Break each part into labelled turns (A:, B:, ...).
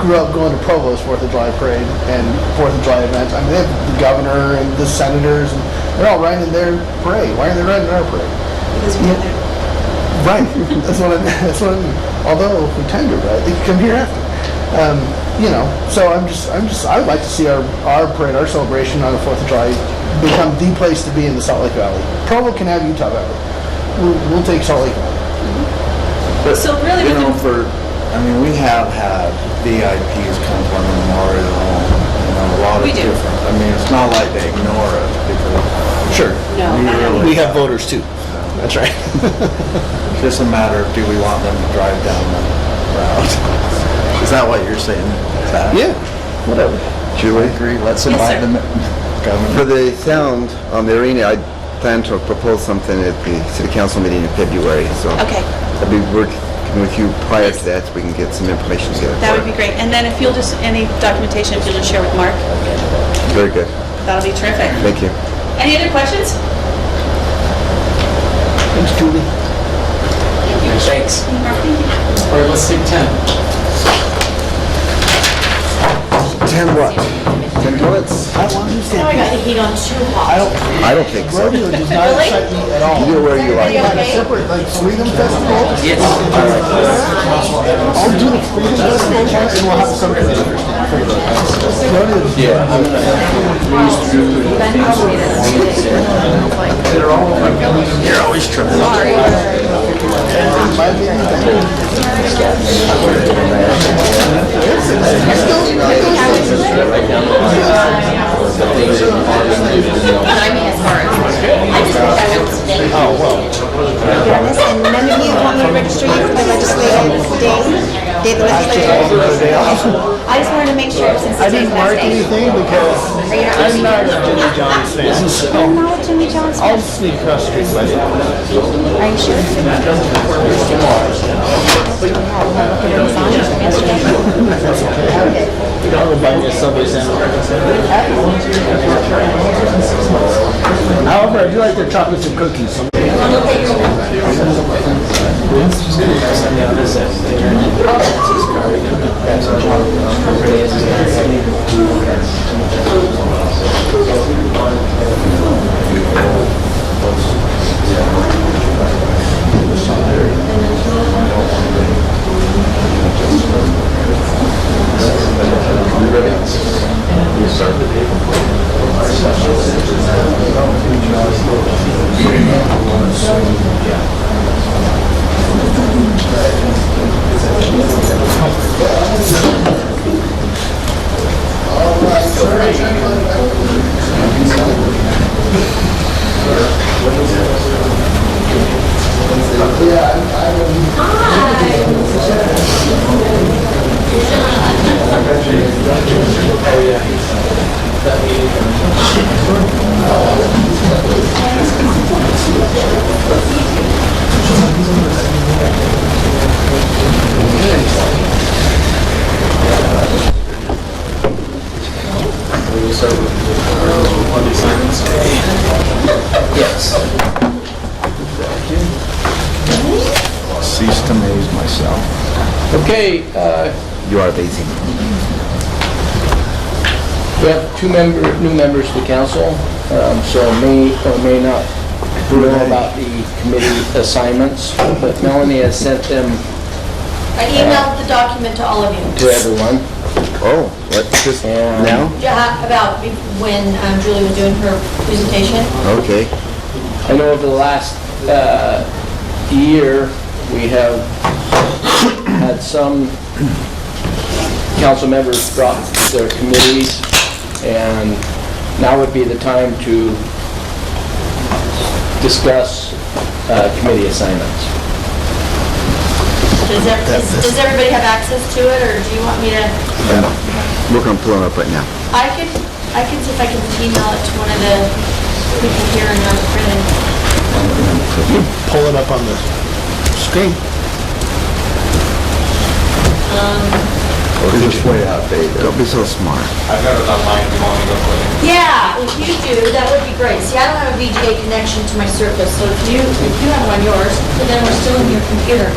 A: grew up going to Provo's Fourth of July parade and Fourth of July events. I mean, they have the governor and the senators, and they're all riding their parade. Why are they riding our parade?
B: Because we have
A: Right. that's what I, that's what I mean. Although if we tender, right, they can come here after. Um, you know, so I'm just, I'm just, I would like to see our, our parade, our celebration on the Fourth of July become the place to be in the Salt Lake Valley. Provo can have Utah Valley. We'll, we'll take Salt Lake Valley.
C: But,
B: So really
C: you
B: we
C: know,
B: can-
C: for, I mean, we have had VIPs come from Memorial, you know, a lot of
B: We do.
C: different. I mean, it's not like they ignore us because
A: Sure.
B: No,
C: we
B: not at all.
C: really.
A: We have voters too. That's right.
C: It's just a matter of do we want them to drive down the route? Is that what you're saying? Is that-
A: Yeah. Whatever.
C: Julie, agree, let's invite
B: sir.
C: them.
D: For
C: Governor.
D: the sound on the arena, I plan to propose something at the city council meeting in February, so.
B: Okay.
D: I'll be working with you prior to that, so we can get some information together.
B: That would be great. And then if you'll just, any documentation, if you'll just share with Mark,
D: Very good,
B: that'll be terrific.
D: thank you.
B: Any other questions?
A: Thanks, Julie.
E: Thanks.
B: Mark, thank you.
E: All right, let's take 10.
D: Ten what? Ten bullets?
A: I want to
F: Now
A: understand.
F: I got the heat on too
A: I
F: hot.
A: don't,
D: I don't think so.
A: rodeo does not
F: Really?
A: excite me at all.
D: You're where you
F: Everybody
D: like.
A: Like a
F: okay?
A: separate, like Freedom Festival? Yes. I'll do the Freedom Festival one and we'll have something interesting. Rodeo.
C: You're always tripping.
A: Might be anything.
F: I mean, as far as. I just think I went today. Oh, well. And none of you want me to register you for the legislative day, day of the legislature? I just wanted to make sure since
A: I
F: today's
A: didn't mark
F: Wednesday.
A: anything because
F: Are you
A: I'm
F: not?
A: not a Jimmy John's fan.
F: You're
A: So
F: not Jimmy John's
A: I'll
F: fan?
A: sneak across the street by then.
F: Are you sure?
A: I'll go buy me a Subway sandwich. However, I do like their chocolates and cookies.
C: Cease to amaze myself.
E: Okay, uh,
D: You are amazing.
E: we have two member, new members to council, um, so may or may not know about the committee assignments, but Melanie has sent them
F: I emailed the document to all of you.
E: to everyone.
D: Oh, what, just
E: Yeah.
D: now?
F: Yeah, about be- when um, Julie was doing her presentation.
D: Okay,
E: I know over the last uh, year, we have had some council members drop their committees, and now would be the time to discuss uh, committee assignments.
F: Does ev- is- does everybody have access to it, or do you want me to?
D: working on pulling up right now.
F: I could, I could see if I can email it to one of the people here and not printed.
A: Pull it up on the screen.
D: Or just way out, Dave. Don't be so smart.
F: Yeah, if you do, that would be great. See, I don't have a VGA connection to my Surface, so if you, if you have one yours, but then we're still in your computer.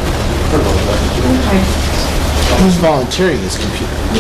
A: Who's volunteering this computer?